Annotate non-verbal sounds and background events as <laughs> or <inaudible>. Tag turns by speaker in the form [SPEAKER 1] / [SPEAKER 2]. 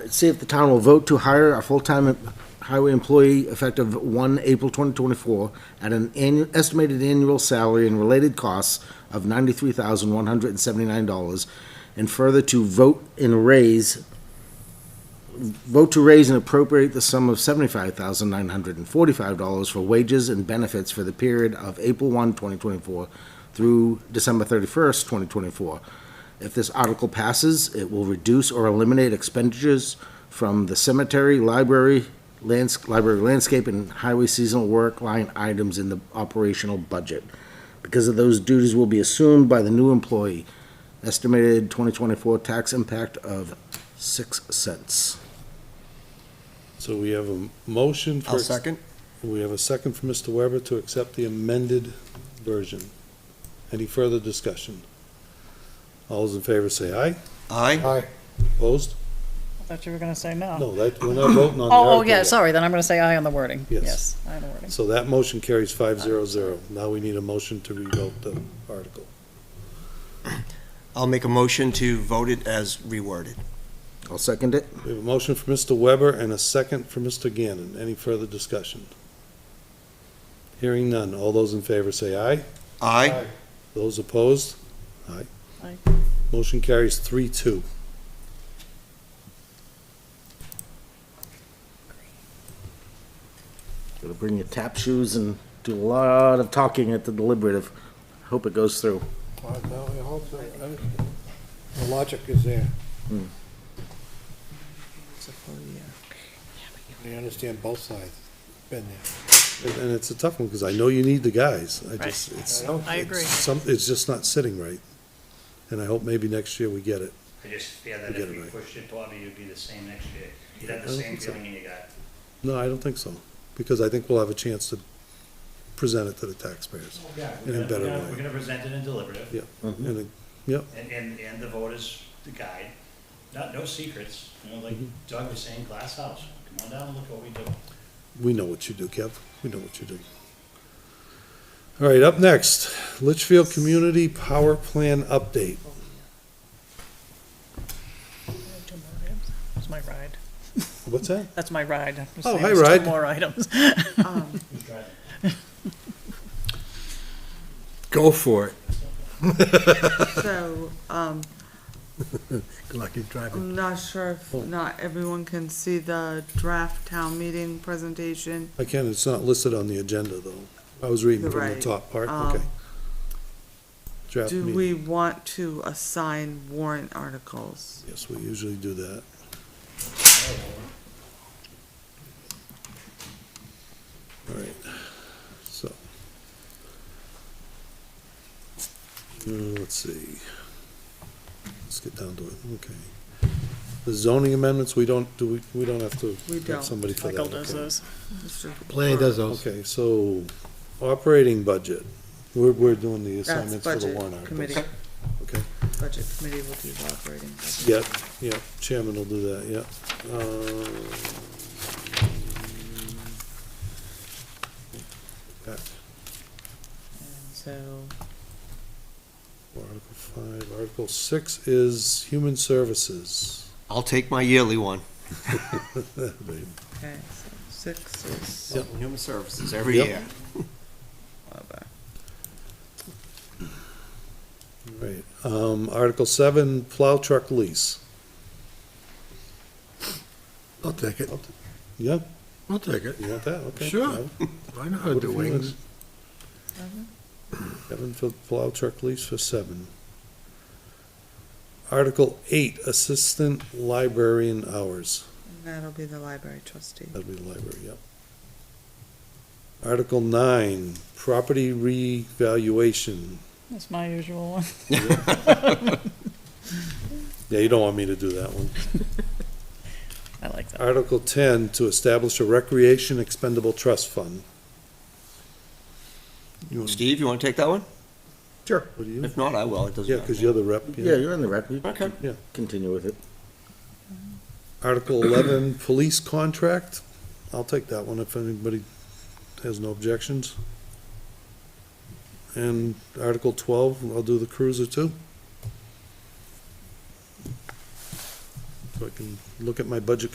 [SPEAKER 1] see if the town will vote to hire a full-time highway employee effective one April twenty twenty-four at an annual, estimated annual salary and related costs of ninety-three thousand one hundred and seventy-nine dollars, and further to vote and raise, vote to raise and appropriate the sum of seventy-five thousand nine hundred and forty-five dollars for wages and benefits for the period of April 1, 2024, through December thirty-first, twenty twenty-four. If this article passes, it will reduce or eliminate expenditures from the cemetery, library, lands, library landscape, and highway seasonal work line items in the operational budget. Because of those duties will be assumed by the new employee. Estimated twenty twenty-four tax impact of six cents.
[SPEAKER 2] So we have a motion for.
[SPEAKER 3] I'll second.
[SPEAKER 2] We have a second from Mr. Weber to accept the amended version. Any further discussion? All those in favor say aye.
[SPEAKER 3] Aye.
[SPEAKER 2] Opposed?
[SPEAKER 4] Thought you were gonna say no.
[SPEAKER 2] No, that, we're not voting on the
[SPEAKER 4] Oh, oh,
[SPEAKER 2] article.
[SPEAKER 4] yeah,
[SPEAKER 2] yet.
[SPEAKER 4] sorry, then I'm gonna say aye on the wording.
[SPEAKER 2] Yes.
[SPEAKER 4] Yes, aye on the wording.
[SPEAKER 2] So that motion carries five zero zero. Now we need a motion to revote the article.
[SPEAKER 3] I'll make a motion to vote it as reworded.
[SPEAKER 1] I'll second it.
[SPEAKER 2] We have a motion for Mr. Weber and a second for Mr. Gannon. Any further discussion? Hearing none. All those in favor say aye.
[SPEAKER 3] Aye.
[SPEAKER 2] Those opposed? Aye.
[SPEAKER 4] Aye.
[SPEAKER 2] Motion carries three two.
[SPEAKER 1] Gonna bring your tap shoes and do a lot of talking at the deliberative. Hope it goes through.
[SPEAKER 2] The logic is there.
[SPEAKER 5] I understand both sides, been there.
[SPEAKER 2] And it's a tough one, because I know you need the guys. I just, it's,
[SPEAKER 5] don't-
[SPEAKER 4] I agree.
[SPEAKER 2] some, it's just not sitting right. And I hope maybe next year we get it.
[SPEAKER 6] I just fear that
[SPEAKER 2] Forget
[SPEAKER 6] if we
[SPEAKER 2] about it.
[SPEAKER 6] pushed it, Bobby, you'd be the same next year. You'd have
[SPEAKER 2] I
[SPEAKER 6] the
[SPEAKER 2] don't
[SPEAKER 6] same
[SPEAKER 2] think so.
[SPEAKER 6] feeling in your gut.
[SPEAKER 2] No, I don't think so, because I think we'll have a chance to present it to the taxpayers. In a
[SPEAKER 6] Oh, We're gonna-
[SPEAKER 2] better
[SPEAKER 6] we're gonna-
[SPEAKER 2] way.
[SPEAKER 6] We're gonna present it in deliberative,
[SPEAKER 2] Yeah, and it- yeah,
[SPEAKER 6] and, and, and the voters, the guide, not, no secrets, you know, like
[SPEAKER 2] Mm-hmm.
[SPEAKER 6] Doug was saying, glass house, come on down and look what we do.
[SPEAKER 2] we know what you do, Kev, we know what you do. All right, up next, Litchfield Community Power Plan Update.
[SPEAKER 4] That's my ride.
[SPEAKER 2] What's that?
[SPEAKER 4] That's my ride. I'm
[SPEAKER 2] Oh,
[SPEAKER 4] saying
[SPEAKER 2] hi,
[SPEAKER 4] there's two
[SPEAKER 2] ride. <laughs>
[SPEAKER 4] More items.
[SPEAKER 6] Who's driving?
[SPEAKER 3] Go for it.
[SPEAKER 7] So, um,
[SPEAKER 2] Good luck in driving.
[SPEAKER 7] I'm not sure if not everyone can see the draft town meeting presentation.
[SPEAKER 2] I can, it's not listed on the agenda, though. I was reading from the
[SPEAKER 7] Right,
[SPEAKER 2] top part,
[SPEAKER 7] um,
[SPEAKER 2] okay. Draft
[SPEAKER 7] Do
[SPEAKER 2] meeting,
[SPEAKER 7] we want to assign warrant articles?
[SPEAKER 2] yes, we usually do that. All right, so. Uh, let's see. Let's get down to it, okay. The zoning amendments, we don't, do we, we don't have to
[SPEAKER 7] We
[SPEAKER 2] have
[SPEAKER 7] don't.
[SPEAKER 2] somebody for that.
[SPEAKER 4] Michael does
[SPEAKER 2] okay.
[SPEAKER 4] those.
[SPEAKER 7] Mr.
[SPEAKER 5] Planning does those.
[SPEAKER 2] Okay, so operating budget, we're, we're doing the
[SPEAKER 7] That's
[SPEAKER 2] assignments for the
[SPEAKER 7] budget
[SPEAKER 2] warrant articles.
[SPEAKER 7] committee,
[SPEAKER 2] Okay,
[SPEAKER 7] budget committee will do the operating. budget.
[SPEAKER 2] yep, yep, chairman will do that, yep. Um, Uh, back,
[SPEAKER 7] And So,
[SPEAKER 2] Article five, article six is human services. <laughs>
[SPEAKER 3] I'll take my yearly one.
[SPEAKER 7] okay, so six is
[SPEAKER 2] Yep.
[SPEAKER 3] Human Services every
[SPEAKER 2] Yep.
[SPEAKER 3] year.
[SPEAKER 7] Wabba.
[SPEAKER 2] Right, um, article seven, plow truck lease.
[SPEAKER 5] I'll take it,
[SPEAKER 2] Yep,
[SPEAKER 5] I'll take it.
[SPEAKER 2] you want that, okay.
[SPEAKER 5] Sure. I know how to
[SPEAKER 2] What
[SPEAKER 5] do
[SPEAKER 2] if you want-
[SPEAKER 5] wings.
[SPEAKER 2] Kevin for the plow truck lease for seven. Article eight, assistant librarian hours,
[SPEAKER 7] And that'll be the library trustee.
[SPEAKER 2] that'd be the library, yep. Article nine, property revaluation,
[SPEAKER 4] That's my usual one. <laughs>
[SPEAKER 2] yeah, you don't want me to do that one.
[SPEAKER 4] I like that.
[SPEAKER 2] Article ten, to establish a recreation expendable trust fund. You want-
[SPEAKER 3] Steve, you want to take that one?
[SPEAKER 2] What do you,
[SPEAKER 3] If not, I will. It doesn't
[SPEAKER 2] yeah,
[SPEAKER 3] matter.
[SPEAKER 2] cause you're the rep,
[SPEAKER 1] Yeah,
[SPEAKER 2] yeah.
[SPEAKER 1] you're in the rep. You
[SPEAKER 3] Okay.
[SPEAKER 1] Continue with it.
[SPEAKER 2] Article eleven, police contract, I'll take that one if anybody has no objections. And Article twelve, I'll do the cruiser too. so I can look at my budget